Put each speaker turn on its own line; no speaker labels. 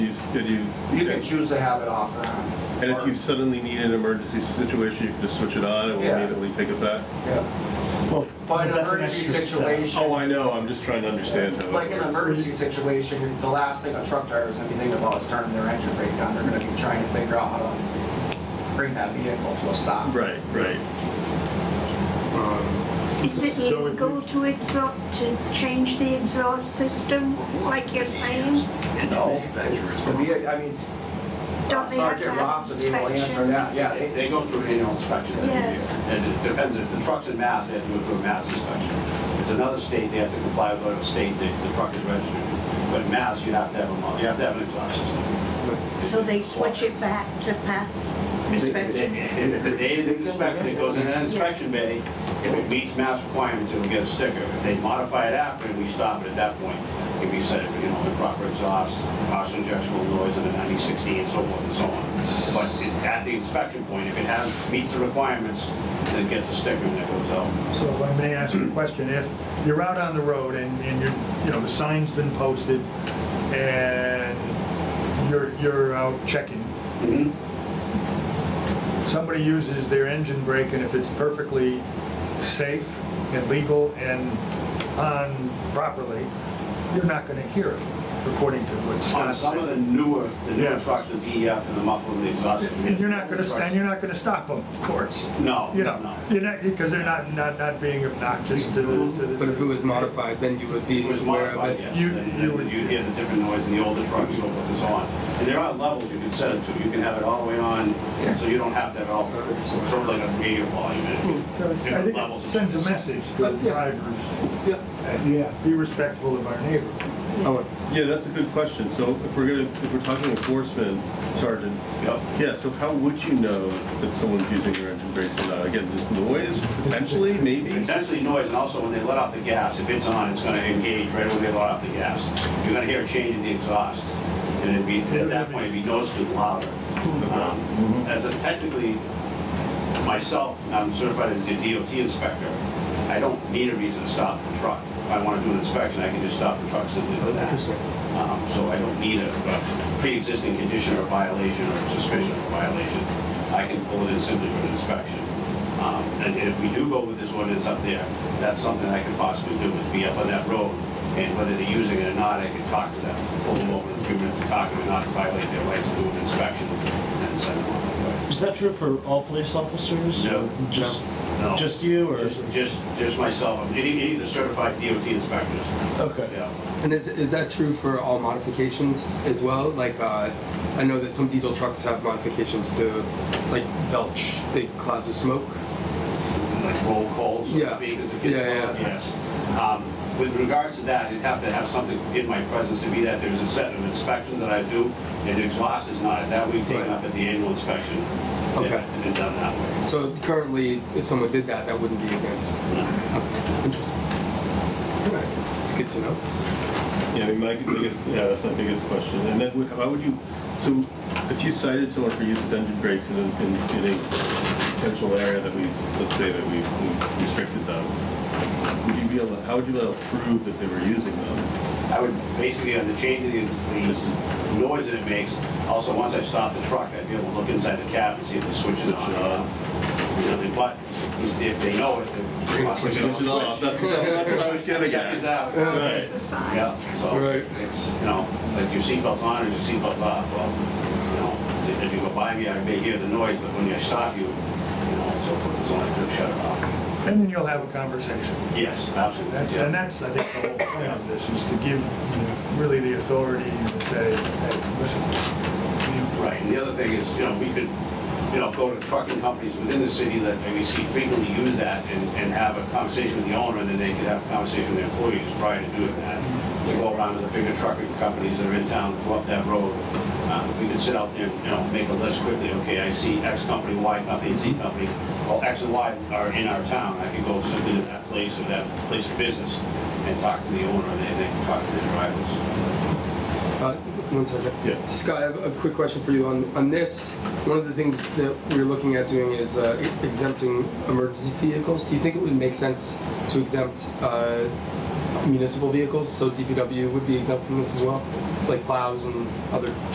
you, did you,
You can choose to have it off and on.
and if you suddenly need an emergency situation, you can just switch it on, it will
Yeah.
immediately take effect?
Yeah.
Well,
But an
that's an
emergency
extra step.
situation.
Oh, I know, I'm just trying to understand how it
Like in an
works.
emergency situation, the last thing a truck driver is gonna be thinking about is turning their engine brake on. They're gonna be trying to figure out how to bring that vehicle to a stop.
Right, right.
Is it
So if
illegal to exhaust, to change the exhaust system, like you're saying?
No. The vehi- I mean,
Don't they have to
Sergeant
have
Ross is able to answer that,
inspections?
yeah.
They, they go through annual inspections every
Yeah.
year. And it depends, if the truck's in Mass, they have to go through a Mass inspection. It's another state, they have to comply with whatever state the, the truck is registered. But in Mass, you have to have a, mo- you have to have an exhaust system.
So they switch it back to pass inspection?
If the day of the inspection, it goes in an inspection bay, if it meets Mass requirements, it'll get a sticker. If they modify it after, we stop it at that point. If we set, you know, improper exhaust, caution injectional noise, and a 9060, and so forth and so on. But it- at the inspection point, if it has, meets the requirements, then it gets a sticker and it goes out.
So if I may ask you a question, if you're out on the road and, and you're, you know, the sign's been posted and you're, you're out checking,
Mm-hmm.
somebody uses their engine brake and if it's perfectly safe and legal and on properly, you're not gonna hear it, according to what
On
Scott
some of the
said.
newer, the newer
Yeah.
trucks, the DEF and the muffler and the exhaust.
And you're not gonna, st- and you're not gonna stop them, of course.
No,
You know,
no.
you're not, because they're not, not, not being obnoxious to the, to the.
But if it was modified, then you would be
It was
aware of
modified,
it.
yes.
You-
Then
you would-
You'd hear the different noise in the older trucks, so forth and so on. And there are levels you can set it to. You can have it all the way on, so you don't have that all, sort of like a radio volume.
Hmm. I
Different
think
levels
it
of-
sends a message to the drivers,
Yeah.
uh, yeah, be respectful of our neighbor.
Oh,
Yeah, that's a good question. So if we're gonna, if we're talking enforcement, Sergeant,
Yep.
yeah, so how would you know that someone's using their engine brakes or not? Again, just noise, potentially, maybe?
Potentially noise, and also when they let off the gas, if it's on, it's gonna engage right when they let off the gas. You're gonna hear a change in the exhaust, and it'd be, at that point, it'd be noticeably louder. Um,
Hmm.
As a technically, myself, I'm certified as a DOT inspector, I don't need a reason to stop the truck. If I wanna do an inspection, I can just stop the truck simply for that. Um, So I don't need a a pre-existing condition or violation or suspicion of violation. I can pull it in simply for an inspection. Um, And and if we do go with this ordinance up there, that's something I could possibly do, is be up on that road, and whether they're using it or not, I could talk to them, pull them over in a few minutes and talk to them, and not violate their rights to do an inspection, and send them on their way.
Is that true for all police officers?
No.
Just,
No.
just you or?
Just, just, just myself, any, any of the certified DOT inspectors,
Okay.
yeah.
And is, is that true for all modifications as well? Like, uh, I know that some diesel trucks have modifications to, like, belch big clouds of smoke.
like roll calls, so to
Yeah.
speak, as it
Yeah, yeah.
gets called, yes. Um, With regards to that, it'd have to have something in my presence to be that there's a set of inspections that I do, and exhaust is not, that we've taken
Right.
up at the annual inspection. and-
Okay.
And done that way.
So currently, if someone did that, that wouldn't be against. Okay, Interesting. All right, it's good to know.
Yeah, I mean, my biggest, yeah, that's my biggest question. And then would- how would you, so if you cited someone for use of engine brakes in, a- in, in a potential area that we, s- let's say that we we restricted them, would you be able, to- how would you be able to prove that they were using them?
I would basically, on the change of the, the noise that it makes, also, once I stop the truck, I'd be able to look inside the cab and see if the switch is on.
Switch it
or
on.
off. You know, they- but if they know it,
Bring
then.
the switch
Switch it off, that's, that's what I was getting
Switch it
at.
out.
Right.
It's a sign.
Uh, Yeah, so
Right.
it's, you know, like your seatbelt's on or your seatbelt's off, well, you know, if you go by me, I may hear the noise, but when I stop you, you know, so forth, it's only to shut it off.
And then you'll have a conversation.
Yes, absolutely.
That's,
yeah.
and that's, I think, the whole point of this, is to give you know, really the authority to say, hey, listen,
Right, and the other thing is, you know, we could, you know, go to trucking companies within the city that we see frequently use that and, and have a conversation with the owner, and then they could have a conversation with their employees prior to doing that. We go around to the bigger trucking companies that are in town, go up that road, uh, we could sit out there, you know, make a list quickly, okay, I see X company, Y company, Z company, well, X and Y are in our town, I could go simply to that place or that place of business and talk to the owner, and they, they can talk to the drivers.
Uh, One second.
Yeah.
Scott, I have a quick question for you on, on this. One of the things that we're looking at doing is uh, exempting emergency vehicles. Do you think it would make sense to exempt uh, municipal vehicles? So DPW would be exempt from this as well, like plows and other